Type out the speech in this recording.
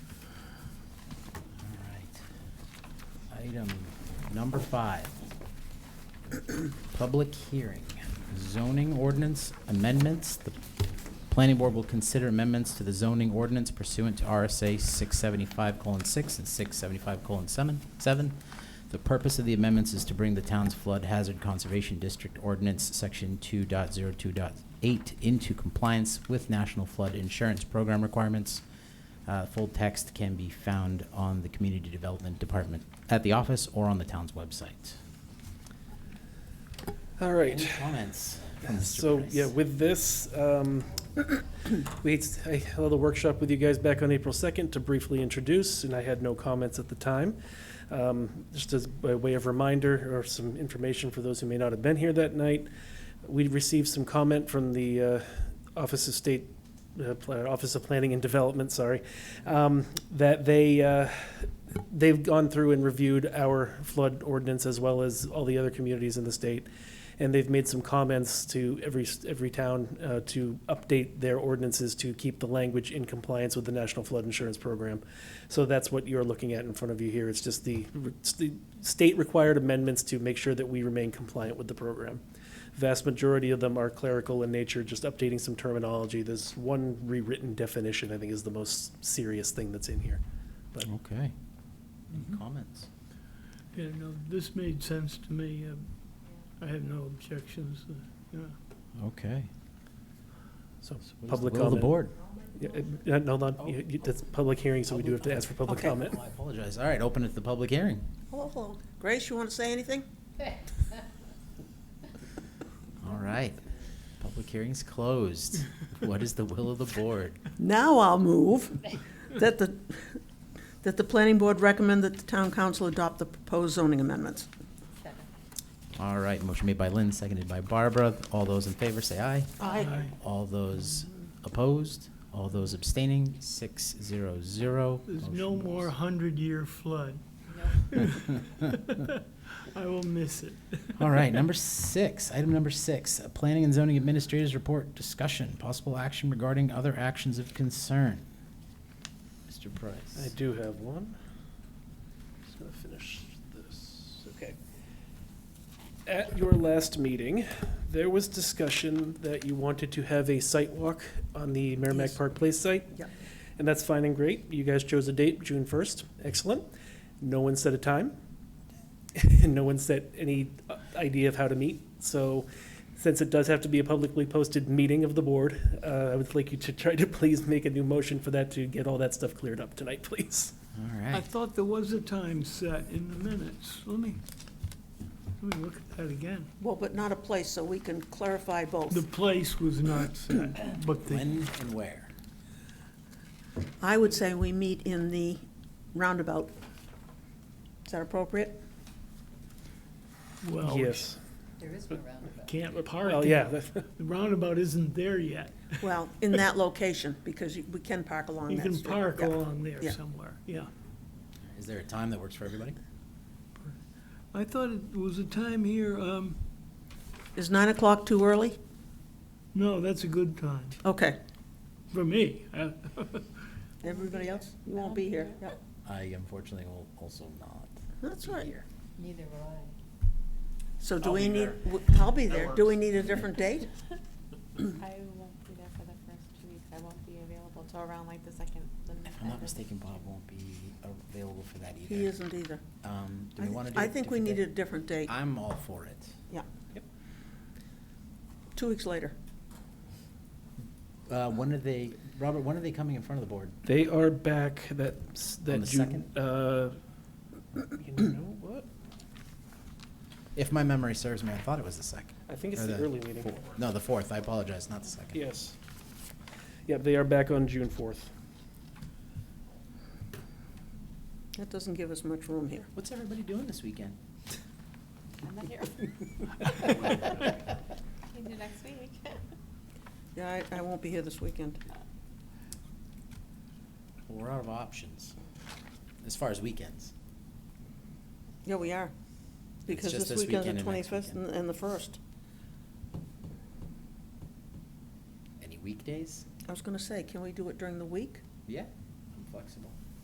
Item number five. Public hearing, zoning ordinance amendments. The planning board will consider amendments to the zoning ordinance pursuant to RSA six seventy-five colon six and six seventy-five colon seven, seven. The purpose of the amendments is to bring the town's flood hazard conservation district ordinance, section 2.02.8, into compliance with national flood insurance program requirements. Uh, full text can be found on the Community Development Department at the office or on the town's website. All Any right. comments? from Mr. So, Price? yeah, with this, um, we, I held a workshop with you guys back on April 2nd to briefly introduce, and I had no comments at the time. Um, Just as by way of reminder, or some information for those who may not have been here that night, we received some comment from the uh, Office of State, uh, Pla- Office of Planning and Development, sorry, um, that they, uh, they've gone through and reviewed our flood ordinance as well as all the other communities in the state and they've made some comments to every, every town uh, to update their ordinances to keep the language in compliance with the National Flood Insurance Program. So that's what you're looking at in front of you here. It's just the, it's the state-required amendments to make sure that we remain compliant with the program. Vast majority of them are clerical in nature, just updating some terminology. There's one rewritten definition, I think, is the most serious thing that's in here. Okay. Any comments? Yeah, no, this made sense to me. Um, I have no objections, uh, you know. Okay. So So, what is the public will of comment. the board? Yeah, uh, no, hold on, You- you- that's public hearing, so we do have to ask for public Okay. comment. Well, I apologize. All right, open it to the public hearing. Hello, hello. Oh, Grace, you want to say anything? All right. Public hearing's closed. What is the will of the board? Now I'll move that the, that the planning board recommend that the town council adopt the proposed zoning amendments. All right, motion made by Lynn, seconded by Barbara. All those in favor say aye. Aye. All those opposed, all those abstaining, six zero zero. There's no Motion more goes. hundred-year flood. I will miss it. All right, number six, item number six, uh, Planning and Zoning Administrators Report Discussion, Possible Action Regarding Other Actions of Concern. Mr. Price. I do have one. Just gonna finish this, okay. At your last meeting, there was discussion that you wanted to have a site walk on the Merrimack Yes. Park Place site. Yep. And that's fine and great. You guys chose a date, June first. Excellent. No one set a time. And no one set any uh, idea of how to meet. So since it does have to be a publicly posted meeting of the board, uh, I would like you to try to please make a new motion for that to get all that stuff cleared up tonight, please. All I right, thought there was a time set in the minutes. Let me, let me look at that again. Well, but not a place, so we can clarify both. The place was not set, but the, when and where? I would say we meet in the roundabout. Is that appropriate? well, Yes. There is no roundabout. can't park. Well, it. yeah, The roundabout isn't there yet. Well, in that location, because you- we can park along You that street. can park Yeah. along there Yeah. somewhere, yeah. Is there a time that works for everybody? I thought it was a time here, um, Is nine o'clock too early? no, that's a good time, Okay. for me. I- Everybody else? You won't be here. Yep. I unfortunately will also not. That's be all right. here. Neither will I. So do I'll we be need, there. w- I'll be there. Do we need a different date? I won't be there for the first two weeks. I won't be available till around like the second, the If I'm not the- mistaken, Bob won't be available for that either. He isn't either. Um, do I we thi- want to do? I a think we different need day? a different date, I'm all for it. two weeks later. Uh, when are they, Robert, when are they coming in front of the board? They are back that, s- that the June. Uh, you know what? If my memory serves me, I thought it was the second. I think it's Or the early meeting. four- No, the fourth, I apologize, not the second. Yes. Yeah, they are back on June fourth. That doesn't give us much room here. What's everybody doing this weekend? I'm not here. Can do next week. Yeah, I, I won't be here this weekend. We're out of options, as far as weekends. Yeah, we are. Because just this this weekend's the weekend and next twenty-fifth and, weekend. and the first. Any weekdays? I was gonna say, can we do it during the week? Yeah, I'm flexible.